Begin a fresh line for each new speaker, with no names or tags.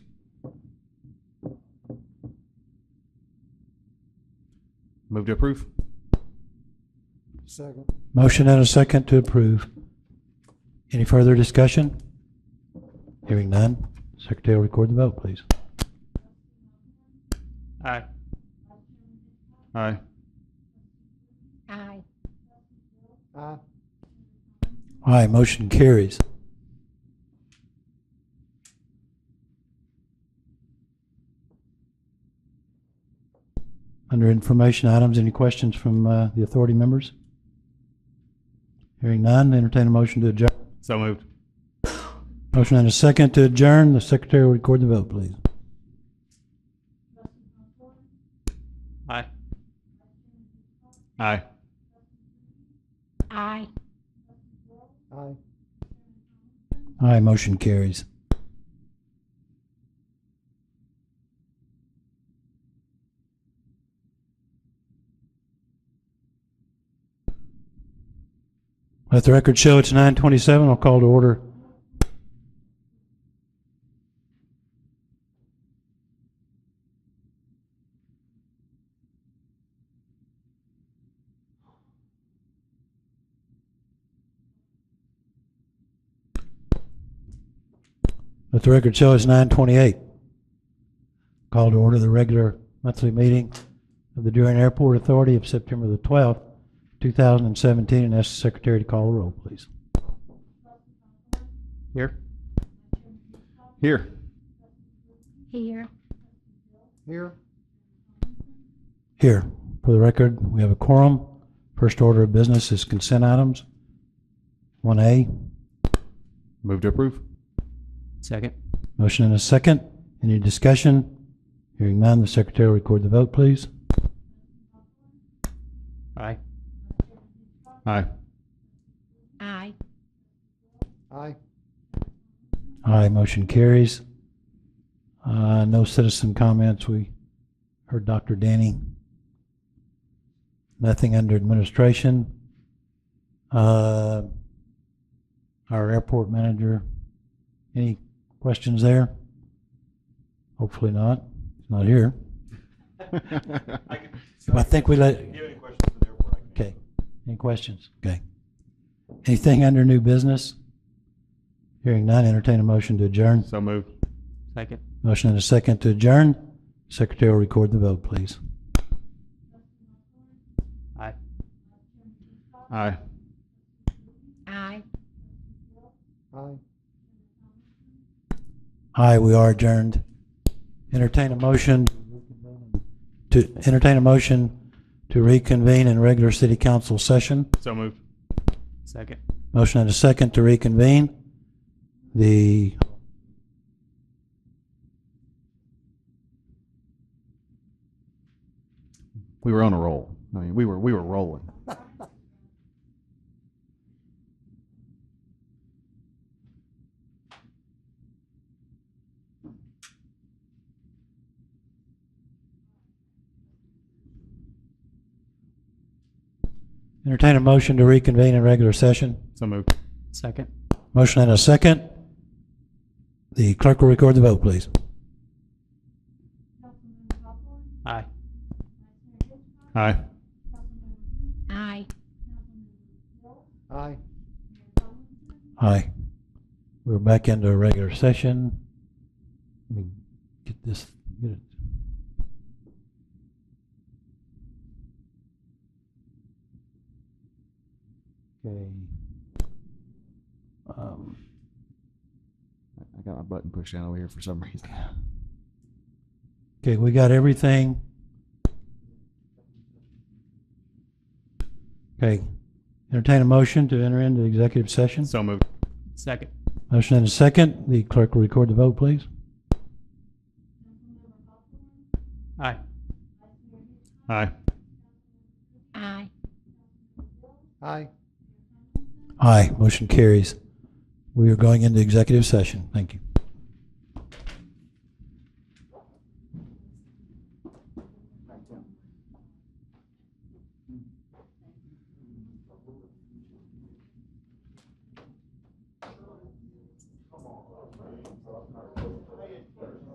Move to approve.
Second.
Motion and a second to approve. Any further discussion? Hearing none. Secretary will record the vote, please.
Aye. Aye.
Aye.
Aye.
Aye, motion carries. Under information items, any questions from uh, the authority members? Hearing none, entertain a motion to adjourn.
So moved.
Motion and a second to adjourn. The secretary will record the vote, please.
Aye. Aye.
Aye.
Aye.
Aye, motion carries. Let the record show it's 9:27. I'll call to order. Let the record show it's 9:28. Call to order the regular monthly meeting of the Durant Airport Authority of September the 12th, 2017, and ask the secretary to call the roll, please.
Here. Here.
Here.
Here.
Here, for the record, we have a quorum. First order of business is consent items. 1A,
Move to approve.
Second.
motion and a second. Any discussion? Hearing none, the secretary will record the vote, please.
Aye.
Aye.
Aye.
Aye.
Aye, motion carries. Uh, No citizen comments. We heard Dr. Danny. Nothing under administration. Uh, Our airport manager, any questions there? Hopefully not. He's not here. I think we let. Okay. Any questions? Okay. Anything under new business? Hearing none, entertain a motion to adjourn.
So moved.
Second.
Motion and a second to adjourn. Secretary will record the vote, please.
Aye.
Aye.
Aye.
Aye.
Aye, we are adjourned. Entertain a motion to, entertain a motion to reconvene in regular city council session.
So moved.
Second.
Motion and a second to reconvene. The
We were on a roll. I mean, we were we were rolling.
Entertain a motion to reconvene in regular session.
So moved.
Second.
Motion and a second. The clerk will record the vote, please.
Aye.
Aye.
Aye.
Aye.
Aye. We're back into a regular session. Let me get this, get it. Okay. Um,
I got my button pushed down over here for some reason.
Okay, we got everything. Okay, entertain a motion to enter into executive session.
So moved.
Second.
Motion and a second. The clerk will record the vote, please.
Aye.
Aye.
Aye.
Aye.
Aye, motion carries. We are going into executive session. Thank you.